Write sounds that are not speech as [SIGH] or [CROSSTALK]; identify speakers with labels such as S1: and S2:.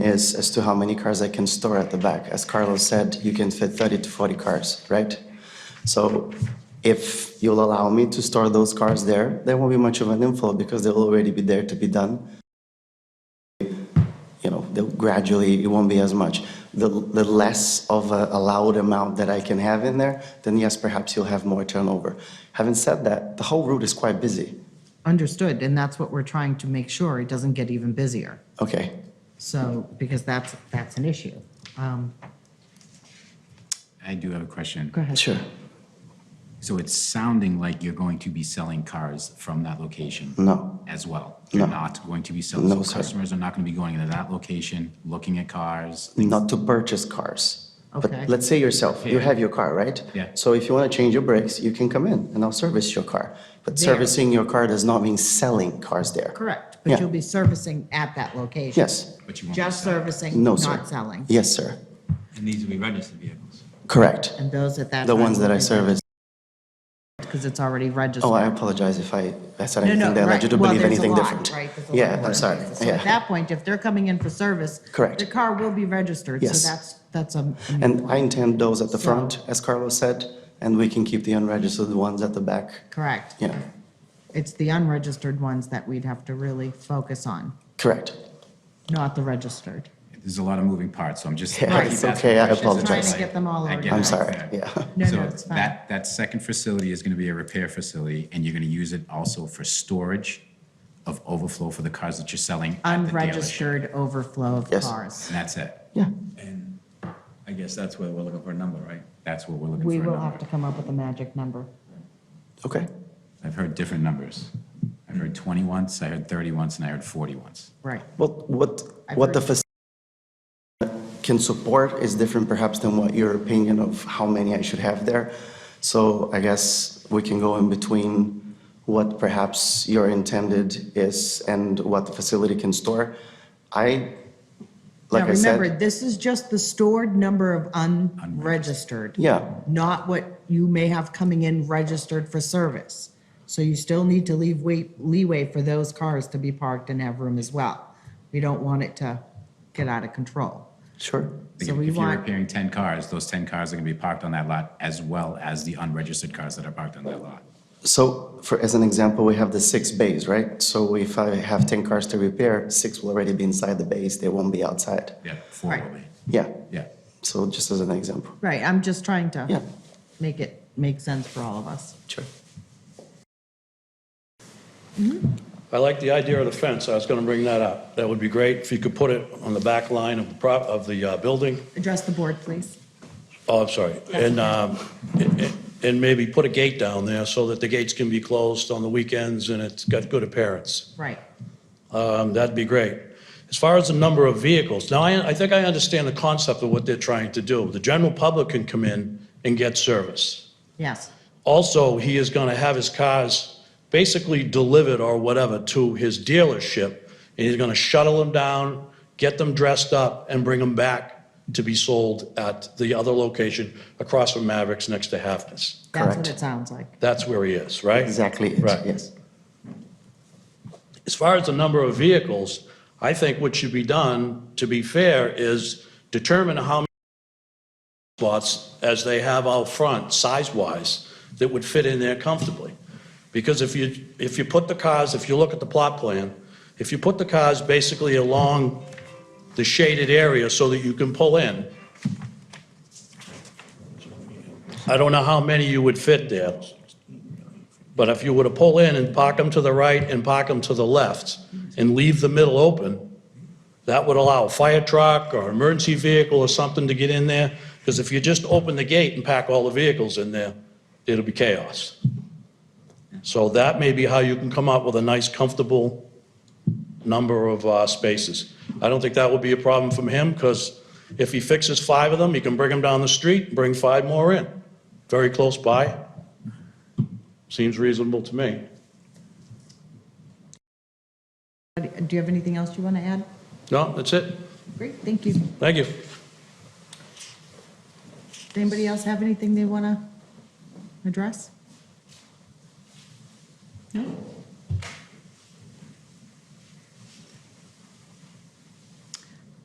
S1: is as to how many cars I can store at the back. As Carlos said, you can fit 30 to 40 cars, right? So if you'll allow me to store those cars there, there won't be much of an inflow because they'll already be there to be done you know, they'll gradually, it won't be as much. The, the less of a allowed amount that I can have in there, then yes, perhaps you'll have more turnover. Having said that, the whole route is quite busy.
S2: Understood, and that's what we're trying to make sure, it doesn't get even busier.
S1: Okay,
S2: So, because that's, that's an issue. Um,
S3: I do have a question.
S2: Go ahead.
S1: sure.
S3: So it's sounding like you're going to be selling cars from that location?
S1: No.
S3: As well? You're not going to be selling?
S1: No,
S3: So
S1: sir.
S3: customers are not going to be going into that location, looking at cars?
S1: Not to purchase cars.
S2: Okay.
S1: But let's say yourself, you
S3: Yeah.
S1: have your car, right?
S3: Yeah.
S1: So if you want to change your brakes, you can come in and I'll service your car. But
S2: There.
S1: servicing your car does not mean selling cars there.
S2: Correct,
S1: Yeah.
S2: but you'll be servicing at that location?
S1: Yes,
S3: But you won't be
S2: Just
S3: selling.
S2: servicing,
S1: no, sir.
S2: not selling?
S1: Yes, sir.
S4: And these will be registered vehicles.
S1: Correct.
S2: And those at that?
S1: The ones that I service.
S2: Because it's already registered?
S1: Oh, I apologize if I, I said
S2: No,
S1: anything
S2: no,
S1: that
S2: right.
S1: led you to
S2: Well,
S1: believe
S2: there's a
S1: anything
S2: lot,
S1: different.
S2: right? There's a lot
S1: Yeah,
S2: of
S1: I'm sorry,
S2: ordinances. So at
S1: yeah.
S2: that point, if they're coming in for service.
S1: Correct.
S2: The car will be registered,
S1: Yes.
S2: so that's, that's a. a new
S1: And
S2: one.
S1: I intend those at the
S2: So-
S1: front, as Carlos said, and we can keep the unregistered ones at the back,
S2: Correct.
S1: yeah,
S2: It's the unregistered ones that we'd have to really focus on,
S1: correct.
S2: not the registered.
S3: There's a lot of moving parts, so I'm just.
S1: Yeah,
S3: I keep
S1: it's
S3: asking
S1: okay, I
S3: questions, and
S1: apologize.
S3: it's
S2: Trying to get them all
S3: I get
S2: organized.
S1: I'm
S3: it.
S1: sorry, yeah. [LAUGHS]
S2: No,
S3: So
S2: no, it's fine.
S3: That, that second facility is going to be a repair facility, and you're going to use it also for storage of overflow for the cars that you're selling at the dealership.
S2: Unregistered overflow of
S1: Yes.
S2: cars.
S3: And that's it.
S1: Yeah,
S4: And I guess that's where we're looking for a number, right?
S3: That's what we're looking for.
S2: We
S3: a
S2: will
S3: number.
S2: have to come up with a magic number.
S1: okay,
S3: I've heard different numbers. I've heard 20 once, I heard 30 once, and I heard 40 once.
S2: Right.
S1: what, what,
S2: I've
S1: what the
S2: heard-
S1: facility can support is different perhaps than what your opinion of how many I should have there. So I guess we can go in between what perhaps your intended is and what the facility can store. I, like
S2: Now,
S1: I said.
S2: remember, this is just the stored number of unregistered.
S1: Yeah.
S2: Not what you may have coming in registered for service. So you still need to leave wait, leeway for those cars to be parked and have room as well. We don't want it to get out of control.
S1: Sure.
S3: Like,
S2: So
S3: if-
S2: we
S3: If you're
S2: want-
S3: repairing 10 cars, those 10 cars are going to be parked on that lot as well as the unregistered cars that are parked on that lot.
S1: So for, as an example, we have the six bays, right? So if I have 10 cars to repair, six will already be inside the bays, they won't be outside.
S3: Yeah, four will
S2: Right.
S3: be.
S1: Yeah,
S3: Yeah.
S1: so just as an example,
S2: Right, I'm just trying
S1: Yeah.
S2: to make it make sense for all of us.
S1: sure.
S5: I like the idea of the fence, I was gonna bring that up. That would be great if you could put it on the back line of the prop, of the uh, building.
S2: Address the board, please.
S5: Oh, I'm sorry. And, um, and- and maybe put a gate down there so that the gates can be closed on the weekends and it's got good appearance.
S2: Right.
S5: Um, that'd be great. As far as the number of vehicles, now I, I think I understand the concept of what they're trying to do. The general public can come in and get service.
S2: Yes,
S5: Also, he is going to have his cars basically delivered or whatever to his dealership, and he's going to shuttle them down, get them dressed up, and bring them back to be sold at the other location across from Mavericks next to Halfness.
S2: that's
S1: Correct.
S2: what it sounds like.
S5: That's where he is, right?
S1: Exactly, it,
S5: Right.
S1: yes.
S5: As far as the number of vehicles, I think what should be done, to be fair, is determine how many spots as they have out front, size-wise, that would fit in there comfortably. Because if you, if you put the cars, if you look at the plot plan, if you put the cars basically along the shaded area so that you can pull in, I don't know how many you would fit there. But if you were to pull in and park them to the right and park them to the left and leave the middle open, that would allow a fire truck or emergency vehicle or something to get in there. Because if you just open the gate and pack all the vehicles in there, it'll be chaos. So that may be how you can come up with a nice, comfortable number of uh, spaces. I don't think that would be a problem from him because if he fixes five of them, he can bring them down the street, and bring five more in, very close by. Seems reasonable to me.
S2: Do you have anything else you want to add?
S5: No, that's it.
S2: Great, thank you.
S5: Thank you.
S2: Does anybody else have anything they want to address? No?